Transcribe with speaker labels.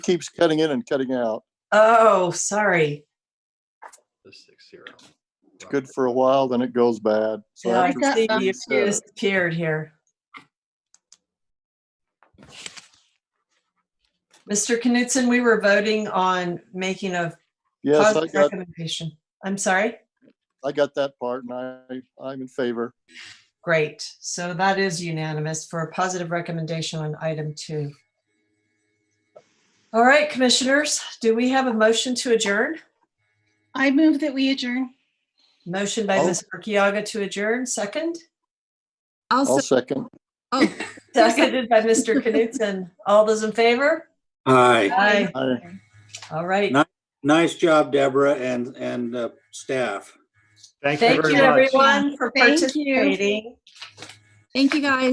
Speaker 1: keeps cutting in and cutting out.
Speaker 2: Oh, sorry.
Speaker 3: The six zero.
Speaker 1: It's good for a while, then it goes bad. So
Speaker 2: Yeah, I
Speaker 1: after-
Speaker 2: can see
Speaker 1: um,
Speaker 2: you
Speaker 1: so-
Speaker 2: disappeared here. Mr. Knutson, we were voting on making a
Speaker 1: Yes, I
Speaker 2: positive
Speaker 1: got,
Speaker 2: recommendation. I'm sorry.
Speaker 1: I got that part and I, I'm in favor.
Speaker 2: Great. So that is unanimous for a positive recommendation on item two. All right, commissioners, do we have a motion to adjourn?
Speaker 4: I move that we adjourn.
Speaker 2: Motion by
Speaker 1: Oh.
Speaker 2: Ms. Urquaga to adjourn, second?
Speaker 1: I'll
Speaker 5: Also,
Speaker 1: second.
Speaker 5: oh,
Speaker 2: Seconded by Mr. Knutson. All those in favor?
Speaker 6: Aye.
Speaker 2: Aye.
Speaker 1: I-
Speaker 2: All right.
Speaker 6: Not- Nice job, Deborah and, and uh, staff.
Speaker 3: Thank
Speaker 2: Thank you, everyone, for
Speaker 4: Thank you.
Speaker 2: participating.
Speaker 5: thank you guys.